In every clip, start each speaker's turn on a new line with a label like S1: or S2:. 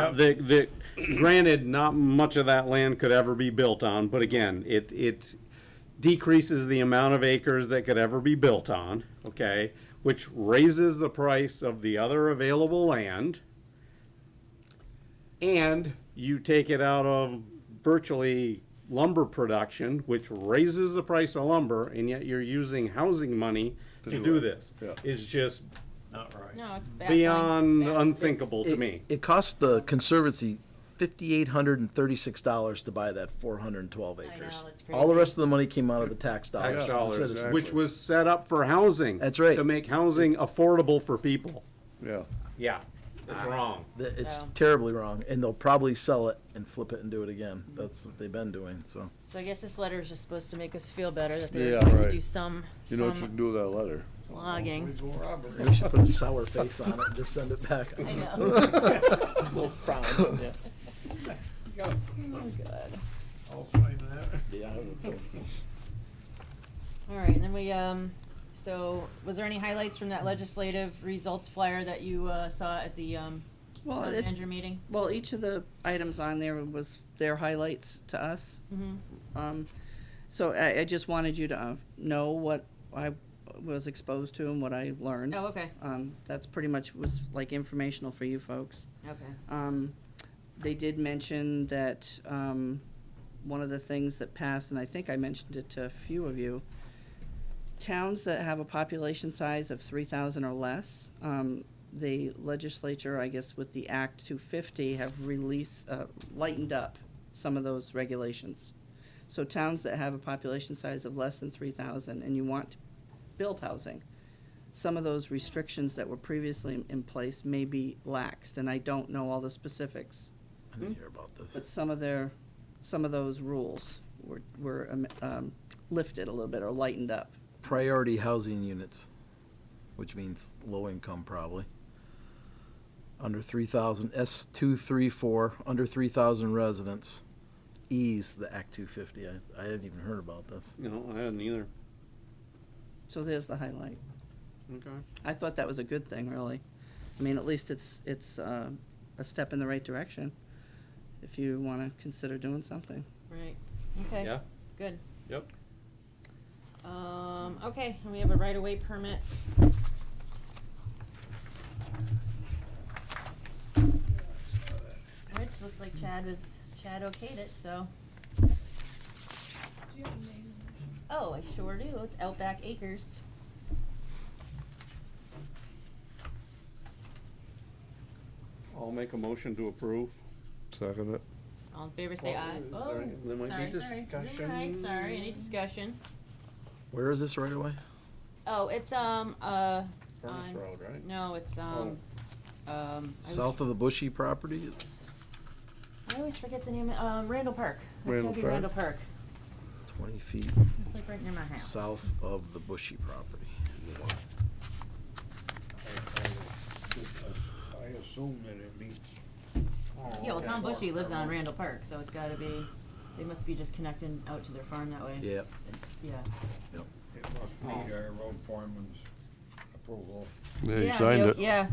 S1: That, that, granted, not much of that land could ever be built on, but again, it, it decreases the amount of acres that could ever be built on, okay? Which raises the price of the other available land. And you take it out of virtually lumber production, which raises the price of lumber, and yet you're using housing money to do this.
S2: Yeah.
S1: It's just
S3: Not right.
S4: No, it's baffling.
S1: beyond
S4: Baffling.
S1: unthinkable to
S2: It-
S1: me.
S2: It cost the conservancy fifty-eight hundred and thirty-six dollars to buy that four hundred and twelve
S4: know,
S2: acres.
S4: that's
S2: All the
S4: crazy.
S2: rest of the money came out of the tax dollars.
S1: tax
S2: for the
S1: dollars,
S2: citizens.
S1: which was set up for housing.
S2: That's right.
S1: To make housing affordable for people.
S5: Yeah.
S1: Yeah, that's wrong.
S2: The- It's
S4: So-
S2: terribly wrong, and they'll probably sell it and flip it and do it again.
S4: Mm-hmm.
S2: That's what they've been doing, so.
S4: So I guess this letter is just supposed to make us feel better that they're
S5: Yeah,
S4: going to
S5: right.
S4: do some,
S5: You know what you
S4: some
S5: can do with that letter?
S4: logging.
S2: We should put a sour face on it and just send it back.
S4: I know. Oh, God.
S3: I'll sign that.
S2: Yeah, I would too.
S4: All right, and then we, um, so was there any highlights from that legislative results flyer that you, uh, saw at the, um,
S6: Well,
S4: town
S6: Oh, it's,
S4: manager meeting?
S6: well, each of the items on there was their highlights to us. Um, so I, I just wanted you to uh, know what I was exposed to and what I learned.
S4: Oh, okay,
S6: Um, that's pretty much was like informational for you folks.
S4: okay.
S6: Um, they did mention that, um, one of the things that passed, and I think I mentioned it to a few of you, towns that have a population size of three thousand or less, um, the legislature, I guess with the Act two fifty, have released, uh, lightened up some of those regulations. So towns that have a population size of less than three thousand and you want to build housing, some of those restrictions that were previously in place may be laxed, and I don't know all the specifics,
S2: I didn't hear about this.
S6: but some of their, some of those rules were, were um, um, lifted a little bit or lightened up.
S2: priority housing units, which means low income probably. Under three thousand, S two, three, four, under three thousand residents, ease the Act two fifty. I, I hadn't even heard about this.
S1: No, I didn't either.
S6: So there's the highlight.
S1: Okay.
S6: I thought that was a good thing, really. I mean, at least it's, it's uh, a step in the right direction if you want to consider doing something.
S4: Right, okay.
S1: Yeah.
S4: Good.
S1: Yep.
S4: Um, okay, and we have a right-of-way permit. Which looks like Chad was, Chad okayed it, so. Oh, I sure do. It's Outback Acres.
S1: I'll make a motion to approve.
S5: Second it.
S4: All in favor, say
S1: Well,
S4: aye.
S1: is there
S4: Oh,
S1: any- there might be
S4: sorry, sorry. You're right,
S1: discussion.
S4: sorry. Any discussion?
S2: Where is this right away?
S4: Oh, it's, um, uh,
S1: Furnace
S4: Um,
S1: Road, right? Oh.
S4: no, it's, um, um. I was-
S2: South of the Bushy property?
S4: I always forget the name, um, Randall Park. It's
S5: Randall
S4: gotta be
S5: Park.
S4: Randall Park.
S2: Twenty feet
S4: It's like right near my house.
S2: south of the Bushy property.
S3: I assume that it means.
S4: Yeah, well, Tom Bushy lives on Randall Park, so it's gotta be, they must be just connecting out to their farm that way.
S2: Yep,
S4: It's, yeah.
S3: It must
S4: Oh.
S3: need our road foreman's approval.
S5: Yeah,
S4: Yeah,
S5: you signed
S4: yo-
S5: it.
S4: Yeah.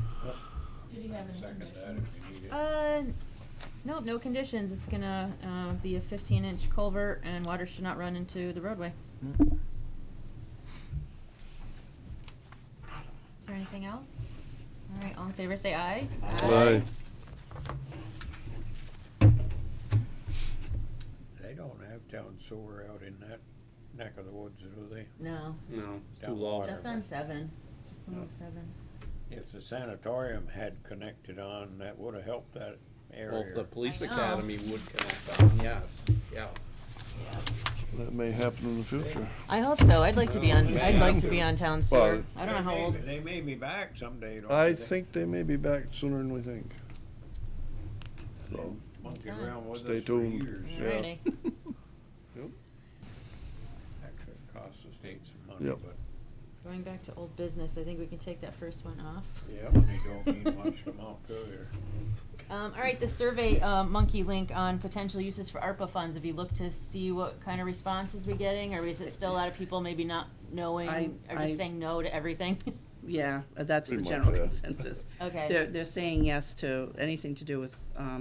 S3: Did you have any conditions?
S4: Uh, no, no conditions. It's gonna, uh, be a fifteen inch culvert and water should not run into the roadway. Is there anything else? All right, all in favor, say aye.
S5: Aye.
S3: They don't have town sewer out in that neck of the woods, do they?
S4: No,
S1: No, it's too
S3: Down
S1: low.
S3: water.
S4: just on seven, just on seven.
S3: If the sanatorium had connected on, that would've helped that
S1: Well, if the
S3: area.
S1: police
S4: I know.
S1: academy would connect on, yes, yeah.
S5: That may happen in the future.
S4: I hope so. I'd like to be on, I'd like to
S5: Yeah.
S4: be on town sewer.
S5: Well,
S4: I don't know how
S3: They may-
S4: old,
S3: They may be back someday, don't
S5: I
S3: they?
S5: think they may be back sooner than we think. So,
S3: Monkey around with us for
S5: Stay tuned.
S3: years.
S5: Yeah.
S4: already.
S3: Actually, it costs the state some money,
S5: Yep.
S3: but,
S4: Going back to old business, I think we can take that first one off.
S3: yeah, they don't mean much to Montpelier.
S4: Um, all right, the survey, uh, monkey link on potential uses for ARPA funds. Have you looked to see what kind of responses we're getting, or is it still a lot of people maybe not knowing,
S6: I-
S4: or
S6: I-
S4: just saying no to everything?
S6: yeah, that's the
S5: Pretty much,
S6: general
S5: yeah.
S6: consensus.
S4: Okay.
S6: They're, they're saying yes to anything to do with, um,